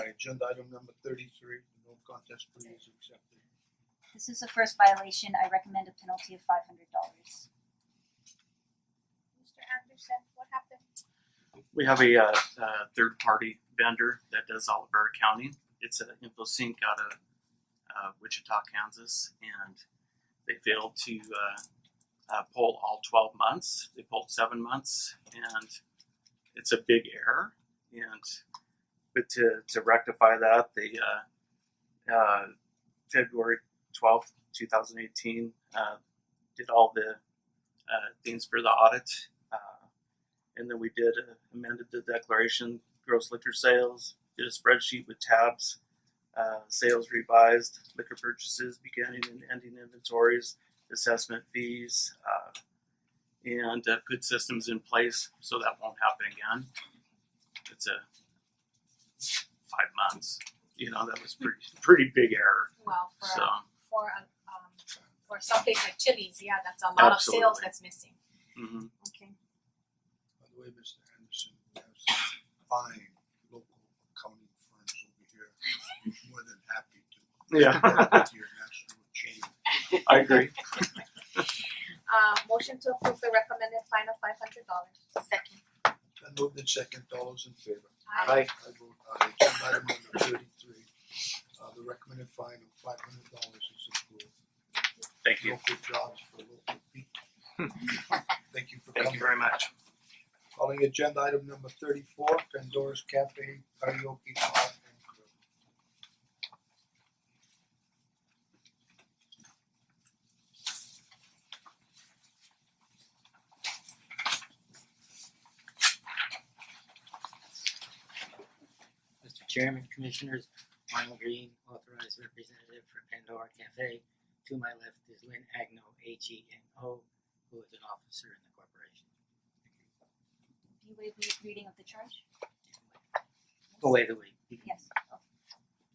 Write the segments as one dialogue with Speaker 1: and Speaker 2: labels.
Speaker 1: Agenda item number thirty-three, no contest plea is accepted.
Speaker 2: This is the first violation. I recommend a penalty of five hundred dollars.
Speaker 3: Mister Anderson, what happened?
Speaker 4: We have a uh uh third party vendor that does all of our accounting. It's an InfoSync out of uh Wichita, Kansas, and they failed to uh uh poll all twelve months. They polled seven months and it's a big error and but to to rectify that, they uh uh February twelfth, two thousand eighteen, uh did all the uh things for the audit. Uh and then we did uh, amended the declaration gross liquor sales did a spreadsheet with tabs uh, sales revised liquor purchases beginning and ending inventories assessment fees uh, and uh, put systems in place so that won't happen again it's a five months you know that was pretty pretty big error
Speaker 3: Well, for
Speaker 4: so
Speaker 3: a, for a, um for something like Chili's, yeah, that's a lot of sales
Speaker 4: Absolutely.
Speaker 3: that's missing.
Speaker 4: mhm.
Speaker 3: Okay.
Speaker 1: By the way, Mr. Anderson, we have some fine local accounting firms over here. More than happy to.
Speaker 4: Yeah.
Speaker 1: work With your national chain.
Speaker 4: i agree
Speaker 3: Uh motion to approve the recommended fine of five hundred dollars. Second.
Speaker 1: Then moved in second, all those in favor?
Speaker 3: Aye.
Speaker 1: I vote aye, agenda item number thirty-three, uh the recommended fine of five hundred dollars is approved.
Speaker 4: thank you
Speaker 1: Local jobs for local people. Thank you for coming.
Speaker 4: thank you very much
Speaker 1: Calling agenda item number thirty-four, Pandora's Cafe Karaoke Bar and Grill.
Speaker 5: Mister Chairman, Commissioners, Arnold Green, authorized representative for Pandora Cafe. To my left is Lynn Agno, H E N O, who is an officer in the corporation.
Speaker 2: Do you waive the reading of the charge?
Speaker 5: Go away the way,
Speaker 2: Yes. Oh,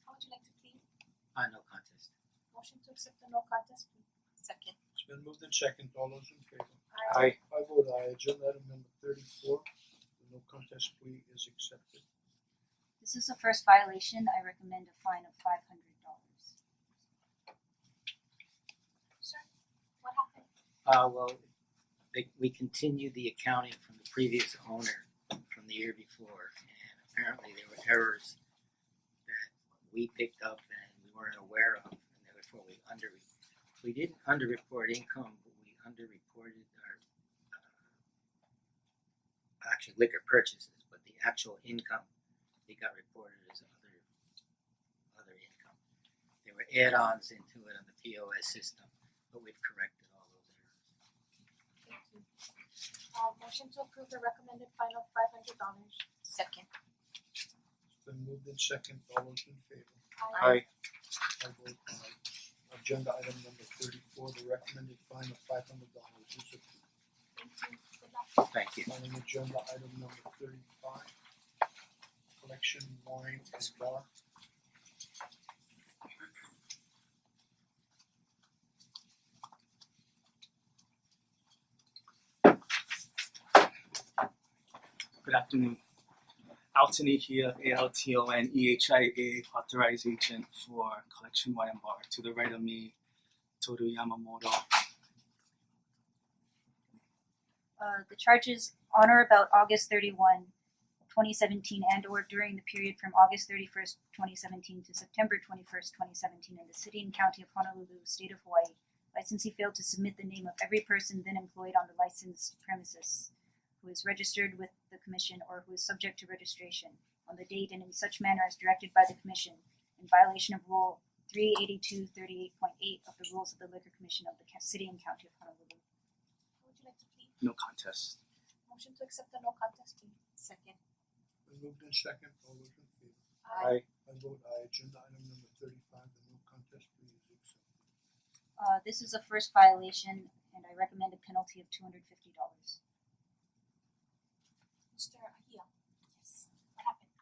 Speaker 3: How would you like to plead?
Speaker 5: on no contest.
Speaker 3: Motion to accept the no contest plea. Second.
Speaker 1: It's been moved in second, all those in favor?
Speaker 3: Aye.
Speaker 1: I vote aye, agenda item number thirty-four, the no contest plea is accepted.
Speaker 2: This is the first violation. I recommend a fine of five hundred dollars.
Speaker 3: Sir, what happened?
Speaker 5: Uh, well, they, we continued the accounting from the previous owner from the year before, and apparently there were errors that we picked up and we weren't aware of, and therefore we under, we didn't underreport income, but we underreported our uh, actually liquor purchases, but the actual income, they got reported as other, other income. There were add-ons into it on the POS system, but we've corrected all those errors.
Speaker 3: Thank you. Uh motion to approve the recommended fine of five hundred dollars. Second.
Speaker 1: It's been moved in second, all those in favor?
Speaker 3: Aye.
Speaker 1: I vote aye, agenda item number thirty-four, the recommended fine of five hundred dollars is approved.
Speaker 3: Thank you. Good luck.
Speaker 5: Thank you.
Speaker 1: Calling agenda item number thirty-five, Collection Wine and Bar.
Speaker 6: Good afternoon. Altony here, A L T O N E H I A, authorized agent for Collection Wine and Bar. To the right of me, Toru Yamamoto.
Speaker 2: Uh, the charges on or about August 31, 2017, and or during the period from August 31st, 2017 to September 21st, 2017 in the city and county of Honolulu, state of Hawaii. Licensee failed to submit the name of every person then employed on the licensed premises who is registered with the commission or who is subject to registration on the date and in such manner as directed by the commission in violation of rule 38238.8 of the rules of the liquor commission of the Ca- city and county of Honolulu.
Speaker 3: How would you like to plead?
Speaker 6: No contest.
Speaker 3: Motion to accept the no contest plea. Second.
Speaker 1: Been moved in second, all those in favor?
Speaker 6: Aye.
Speaker 1: I vote aye, agenda item number thirty-five, the no contest plea is accepted.
Speaker 2: Uh, this is a first violation and I recommend a penalty of two hundred fifty dollars.
Speaker 3: Mister Ahiya. Yes. What happened?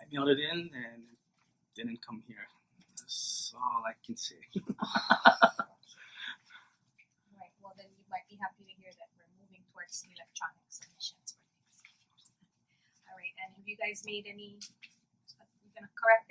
Speaker 6: I mailed it in and it didn't come here. That's all I can say.
Speaker 3: Right, well then you might be happy to hear that we're moving towards electronic submissions for things. Alright, and have uh, you guys made any,
Speaker 2: gonna correct it.